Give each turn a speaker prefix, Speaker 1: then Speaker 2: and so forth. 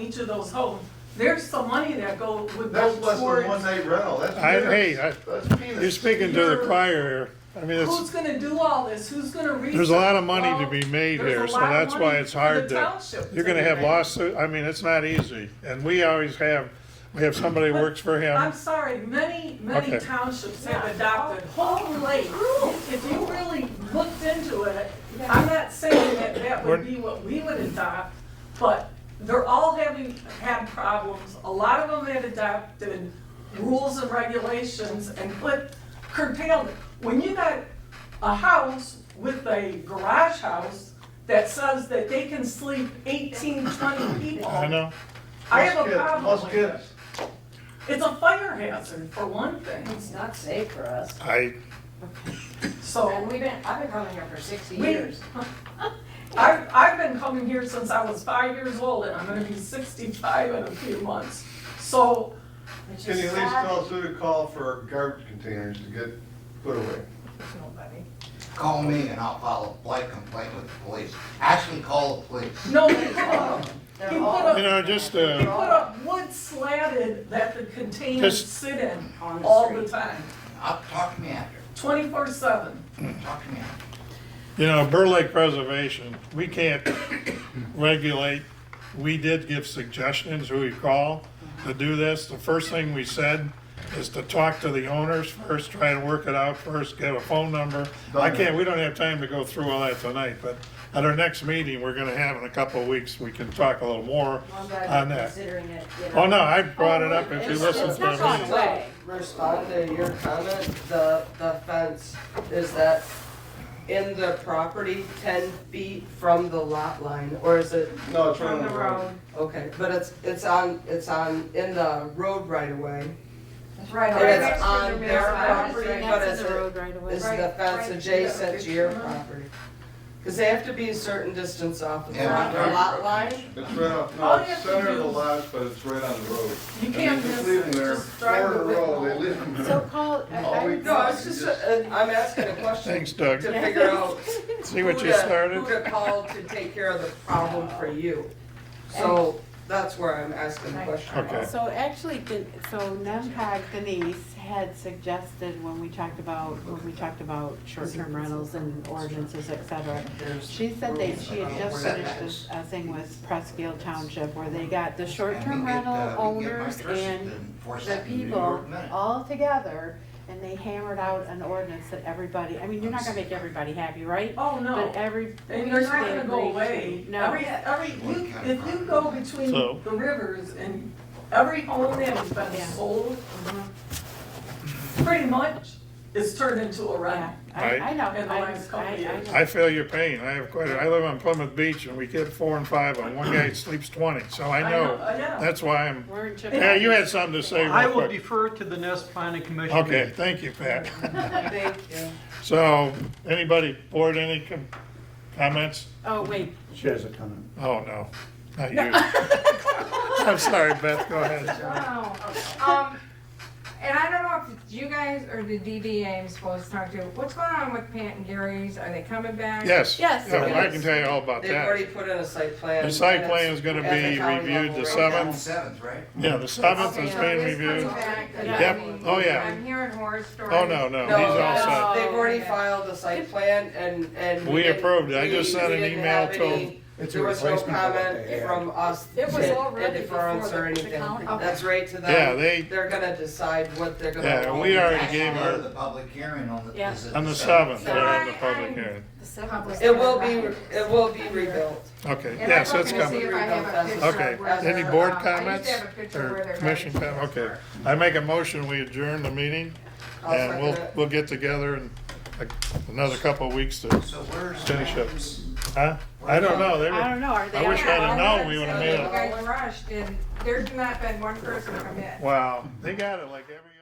Speaker 1: each of those homes, there's some money that go, would go
Speaker 2: That's less than one
Speaker 1: towards.
Speaker 2: night rental, that's
Speaker 3: I- hey,
Speaker 2: peanuts. That's peanuts.
Speaker 3: You're speaking to the choir here. I mean,
Speaker 1: Who's
Speaker 3: it's,
Speaker 1: gonna do all this? Who's gonna research?
Speaker 3: there's a lot of money
Speaker 1: Well,
Speaker 3: to be made
Speaker 1: there's a
Speaker 3: here, so
Speaker 1: lot of
Speaker 3: that's why
Speaker 1: money
Speaker 3: it's
Speaker 1: for
Speaker 3: hard
Speaker 1: the
Speaker 3: to,
Speaker 1: township
Speaker 3: you're gonna have
Speaker 1: make.
Speaker 3: lawsuit, I mean, it's not easy. And we always have, we have somebody who works for
Speaker 1: I'm
Speaker 3: him.
Speaker 1: sorry, many, many
Speaker 3: Okay.
Speaker 1: townships have adopted whole lakes. If you really looked into it, I'm not saying that that would be what we would adopt, but they're all having, had problems. A lot of them had adopted rules and regulations and put curtailed. When you got a house with a garage house that says that they can sleep 18, 20 people.
Speaker 3: I know.
Speaker 1: I have
Speaker 2: Plus
Speaker 1: a
Speaker 2: kids,
Speaker 1: problem
Speaker 2: Plus
Speaker 1: with that.
Speaker 2: kids.
Speaker 1: It's a fire hazard, for one thing,
Speaker 4: It's not safe for us.
Speaker 3: I,
Speaker 4: And
Speaker 1: so
Speaker 4: we've been, I've been coming here for sixty
Speaker 1: We-
Speaker 4: years.
Speaker 1: I've, I've been coming here since I was five years old, and I'm gonna be sixty-five in a few months. So,
Speaker 4: It's
Speaker 2: Can
Speaker 4: just
Speaker 2: you at least
Speaker 4: sad.
Speaker 2: tell us who to call for garbage containers to get put away?
Speaker 1: nobody,
Speaker 5: Call me and I'll file a blight complaint with the police. Actually, call the police.
Speaker 1: no, he put up,
Speaker 4: They're
Speaker 1: he put
Speaker 4: all-
Speaker 3: you
Speaker 1: up,
Speaker 3: know, just,
Speaker 1: he uh, put
Speaker 3: uh,
Speaker 1: up wood slatted that the containers
Speaker 3: Just-
Speaker 1: sit in
Speaker 4: On the
Speaker 1: all the
Speaker 4: street.
Speaker 1: time,
Speaker 5: I'll, talk to me after.
Speaker 1: twenty-four seven.
Speaker 5: Talk to me after.
Speaker 3: you know, Burr Lake Preservation, we can't regulate. We did give suggestions who we call to do this. The first thing we said is to talk to the owners first, try and work it out first, get a phone number. I can't, we don't have time to go through all that tonight, but at our next meeting, we're gonna have in a couple of weeks, we can talk a little more
Speaker 4: I'm
Speaker 3: on
Speaker 4: glad you're
Speaker 3: that.
Speaker 4: considering it, you know.
Speaker 3: Oh, no, I brought it up if you
Speaker 6: It's-
Speaker 3: listen
Speaker 6: it's
Speaker 3: to
Speaker 6: not gone
Speaker 3: me.
Speaker 6: away. Respond to your comment, the, the fence, is that in the property ten feet from the lot line, or is it,
Speaker 2: No, it's
Speaker 1: From
Speaker 2: running
Speaker 1: the road,
Speaker 6: okay, but it's, it's on, it's on, in the road right away.
Speaker 4: It's right
Speaker 6: And
Speaker 4: on
Speaker 6: it's
Speaker 4: the-
Speaker 6: on
Speaker 4: the
Speaker 6: their
Speaker 4: mailbox.
Speaker 6: property,
Speaker 4: Right
Speaker 6: but
Speaker 4: next
Speaker 6: is
Speaker 4: to the
Speaker 6: it-
Speaker 4: road right away.
Speaker 6: Is the fence adjacent to your property? Cause they have to be a certain distance off of the
Speaker 5: Yeah.
Speaker 6: lot, their lot line.
Speaker 2: It's right off,
Speaker 1: All
Speaker 2: no,
Speaker 1: you
Speaker 2: it's
Speaker 1: have to
Speaker 2: center of the
Speaker 1: do-
Speaker 2: lot, but it's right on the road.
Speaker 1: you
Speaker 2: And they
Speaker 1: can't
Speaker 2: just
Speaker 1: miss
Speaker 2: leave them
Speaker 1: it,
Speaker 2: there,
Speaker 1: just drive
Speaker 2: four in a
Speaker 1: with
Speaker 2: row,
Speaker 1: it.
Speaker 2: they leave them
Speaker 7: So
Speaker 2: there.
Speaker 7: Paul, I-
Speaker 2: Oh, we-
Speaker 7: I,
Speaker 6: No, it's just, a- uh, I'm asking a question
Speaker 3: Thanks,
Speaker 6: to
Speaker 3: Doug.
Speaker 6: figure out
Speaker 3: See
Speaker 6: who
Speaker 3: what you
Speaker 6: to-
Speaker 3: started?
Speaker 6: Who to call to take care of the problem for you. So that's where I'm asking the question.
Speaker 3: Okay.
Speaker 7: so actually, Den- so NEMCOG Denise had suggested when we talked about, when we talked about short-term rentals and ordinances, et cetera. She said that she had just finished this, a thing with Prescott Township where they got the short-term rental owners and the people all together and they hammered out an ordinance that everybody, I mean, you're not gonna make everybody happy, right?
Speaker 1: Oh, no.
Speaker 7: But every.
Speaker 1: And they're not
Speaker 7: they
Speaker 1: gonna go
Speaker 7: agreed to.
Speaker 1: away.
Speaker 7: No.
Speaker 1: Every, every, you- if you go between
Speaker 3: So-
Speaker 1: the rivers and every home that has been
Speaker 7: Yeah. Mm-hmm.
Speaker 1: sold, pretty much is turned into a
Speaker 7: Yeah,
Speaker 1: rental.
Speaker 7: I, I know,
Speaker 1: In the
Speaker 7: I,
Speaker 1: last couple
Speaker 7: I, I
Speaker 1: years.
Speaker 7: know.
Speaker 3: I feel your pain. I have quite, a- I live on Plymouth Beach and we get four and five and one guy sleeps twenty, so I know.
Speaker 1: Yeah.
Speaker 3: That's why I'm,
Speaker 7: We're in Japan.
Speaker 3: yeah, you had something to say
Speaker 8: I
Speaker 3: real
Speaker 8: will
Speaker 3: quick.
Speaker 8: defer to the Nest Planning Commission.
Speaker 3: Okay, thank you, Pat.
Speaker 6: Thank you.
Speaker 3: So, anybody board any com- comments?
Speaker 7: Oh, wait,
Speaker 9: She has a comment.
Speaker 3: Oh, no, not you. I'm sorry, Beth, go ahead.
Speaker 10: Wow. Um, and I don't know if it's you guys or the DDA I'm supposed to talk to. What's going on with Pat and Gary's? Are they coming back?
Speaker 3: Yes.
Speaker 7: Yes.
Speaker 3: Yeah, well, I can tell you all about
Speaker 6: They've
Speaker 3: that.
Speaker 6: already put in a site plan.
Speaker 3: The site
Speaker 6: and
Speaker 3: plan is
Speaker 6: it's
Speaker 3: gonna
Speaker 6: at the
Speaker 3: be
Speaker 6: county
Speaker 3: reviewed the
Speaker 6: level right
Speaker 3: seventh.
Speaker 6: now.
Speaker 5: Seventh, right?
Speaker 3: Yeah, the seventh
Speaker 10: Okay,
Speaker 3: is
Speaker 10: so
Speaker 3: being
Speaker 10: it is coming
Speaker 3: reviewed.
Speaker 10: back, and
Speaker 7: Yep.
Speaker 10: I mean,
Speaker 3: Oh, yeah.
Speaker 10: I'm hearing horror stories.
Speaker 3: Oh, no, no, he's
Speaker 6: No,
Speaker 3: all
Speaker 6: that's-
Speaker 3: set.
Speaker 4: Oh,
Speaker 6: they've already filed the site plan and, and.
Speaker 3: We
Speaker 6: didn't-
Speaker 3: approved it. I
Speaker 6: we-
Speaker 3: just sent
Speaker 6: we
Speaker 3: an
Speaker 6: didn't
Speaker 3: email
Speaker 6: have
Speaker 3: to
Speaker 6: any-
Speaker 9: It's a
Speaker 6: There was no
Speaker 9: replacement for what they
Speaker 6: comment
Speaker 9: had.
Speaker 6: from us.
Speaker 4: It was
Speaker 6: in- in
Speaker 4: already
Speaker 6: deference
Speaker 4: before
Speaker 6: or
Speaker 4: the- the
Speaker 6: anything.
Speaker 4: county.
Speaker 6: That's right to them.
Speaker 3: Yeah, they-
Speaker 6: They're gonna decide what they're gonna.
Speaker 3: Yeah,
Speaker 6: vote
Speaker 3: we
Speaker 6: on.
Speaker 3: already gave
Speaker 5: Actually,
Speaker 3: her,
Speaker 5: The public hearing on the,
Speaker 7: Yeah.
Speaker 5: is it
Speaker 3: on the seventh, they have the
Speaker 10: So I-
Speaker 3: public
Speaker 10: I'm-
Speaker 3: hearing.
Speaker 4: The seventh was-
Speaker 6: It will be, it will be rebuilt.
Speaker 3: Okay,
Speaker 10: And I'm
Speaker 3: yes, that's
Speaker 10: looking to
Speaker 3: coming.
Speaker 10: see if I have a picture of
Speaker 3: Okay,
Speaker 10: where
Speaker 3: any
Speaker 10: they're,
Speaker 3: board
Speaker 10: um,
Speaker 3: comments?
Speaker 10: I used to have a picture of where
Speaker 3: Or
Speaker 10: they're
Speaker 3: commission
Speaker 10: headed.
Speaker 3: comment, okay. I make a motion, we adjourn the meeting,
Speaker 6: I'll
Speaker 3: and we'll,
Speaker 6: second it.
Speaker 3: we'll get together in a- another couple of weeks to,
Speaker 5: So where's?
Speaker 3: Finish up. huh? I don't know, they
Speaker 7: I
Speaker 3: were,
Speaker 7: don't know, are they?
Speaker 3: I wish I'd have known, we would have made
Speaker 10: So You
Speaker 3: it.
Speaker 10: guys rushed and there's not been one person come in.
Speaker 3: Wow, they got it like every.